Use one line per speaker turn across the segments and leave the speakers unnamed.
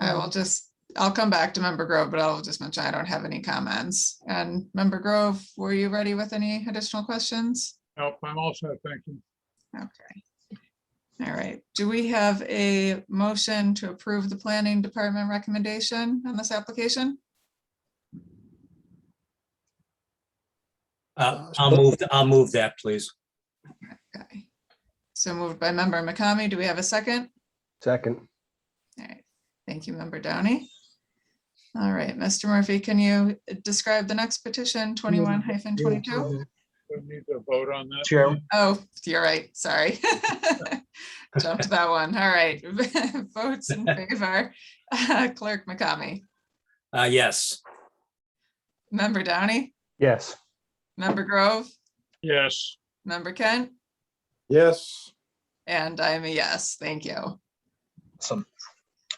I will just, I'll come back to Member Grove, but I'll just mention I don't have any comments. And Member Grove, were you ready with any additional questions?
Nope, Oh, I'm all set, thank you.
Okay. All right, do we have a motion to approve the planning department recommendation on this application?
Uh, I'll move, I'll move that, please.
Okay. So moved by Member McCamey. Do we have a second?
Second,
All right, thank you, Member Downey. All right, Mr. Murphy, can you describe the next petition, twenty-one hyphen twenty-two?
We need to vote on that.
Chair,
Oh, you're right, sorry. Jumped that one, all right. Votes in favor, Clerk McCamey,
Uh, yes,
Member Downey,
yes,
Member Grove,
Yes,
Member Kent,
Yes,
and I'm a yes, thank you. All
some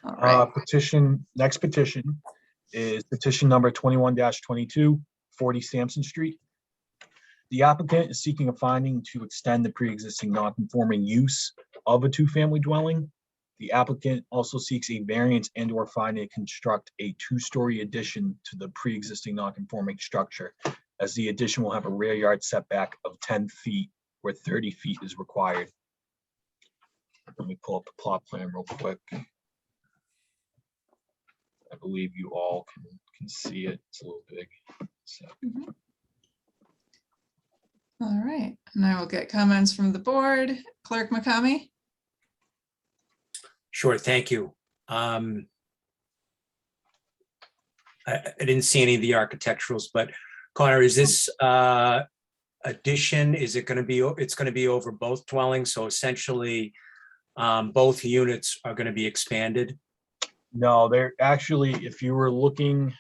uh,
right,
petition, next petition is petition number twenty-one 22 40 Sampson Street. The applicant is seeking a finding to extend the pre-existing non-conforming use of a two-family dwelling. The applicant also seeks a variance and or finding to construct a two-story addition to the pre-existing non-conforming structure as the addition will have a rear yard setback of ten feet where thirty feet is required. Let me pull up the plot plan real quick. I believe you all can, can see it. It's a little big. So,
all right, and I will get comments from the board. Clerk McCamey,
sure, thank you. Um, I, I didn't see any of the architecturals, but Connor, is this, uh, addition, is it gonna be, o- it's gonna be over both dwellings, so essentially, um, both units are gonna be expanded?
no, there actually, if you were looking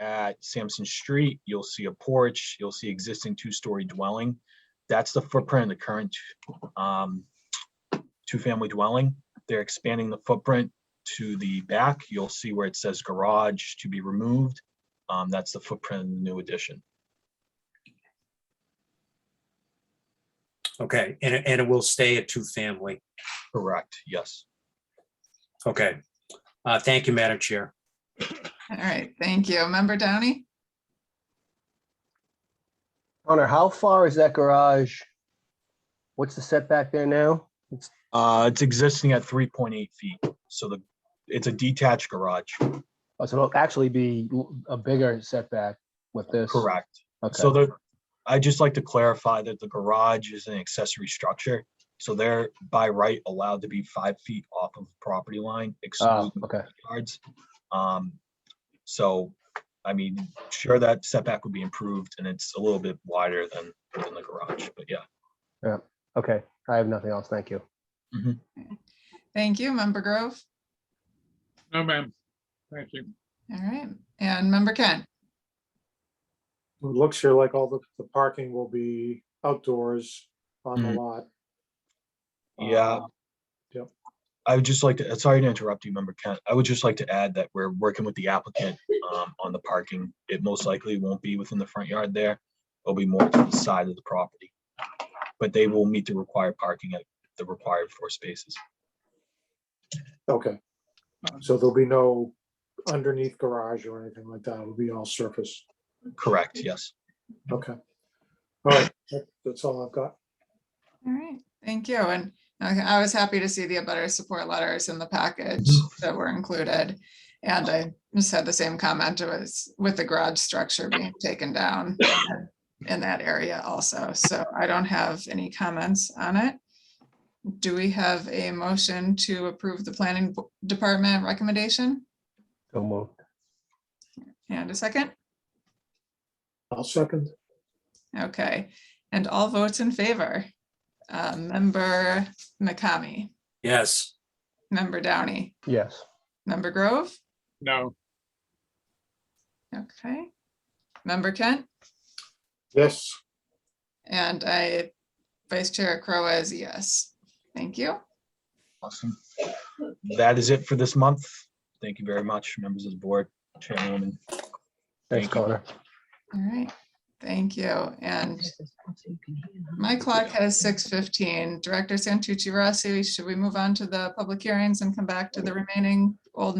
at Sampson Street, you'll see a porch, you'll see existing two-story dwelling. That's the footprint of the current um, two-family dwelling. They're expanding the footprint to the back. You'll see where it says garage to be removed. Um, That's the footprint of the new addition.
Okay, and, it- and it will stay a two-family,
Correct, yes.
okay. Uh, thank you, Madam Chair.
all right, thank you. Member Downey,
Connor, how far is that garage? What's the setback there now?
Uh, it's existing at three point eight feet, so the, it's a detached garage,
Oh, So it'll actually be l- a bigger setback with this.
correct?
Okay,
So the, I just like to clarify that the garage is an excessory structure. So they're by right allowed to be five feet off of property line,
Ah,
excluding
okay,
yards. Um, so, I mean, sure, that setback would be improved and it's a little bit wider than, than the garage, but yeah.
okay. I have nothing else. Thank you.
thank you. Member Grove,
no, ma'am. Thank you.
all right, and Member Kent,
it looks here like all the, the parking will be outdoors on the
Mhm.
lot.
Yeah.
Uh, yep.
I would just like to, sorry to interrupt you, member Kent. I would just like to add that we're working with the applicant um, on the parking. It most likely won't be within the front yard there. It'll be more to the side of the property. But they will meet the required parking at the required four spaces.
Okay, so there'll be no underneath garage or anything like that. It'll be all surface.
Correct, yes.
Okay. All right, that- that's all I've got.
all right, thank you. And I I was happy to see the better support letters in the package that were included. And I just had the same comment, it was with the garage structure being taken down in that area also, so I don't have any comments on it. Do we have a motion to approve the planning bo- department recommendation?
So moved.
And a second?
I'll second.
Okay, and all votes in favor. Uh, Member McCamey,
Yes,
Member Downey,
Yes,
Member Grove?
No,
Okay. Member Kent
Yes,
and I, Vice Chair Crowe is yes. Thank you.
Awesome. That is it for this month. Thank you very much, members of the board, chairwoman.
thanks,
Thank you.
Connor.
All right. Thank you. And my
My
clock has six fifteen. Director Santucci Rossi, should we move on to the public hearings and come back to the remaining old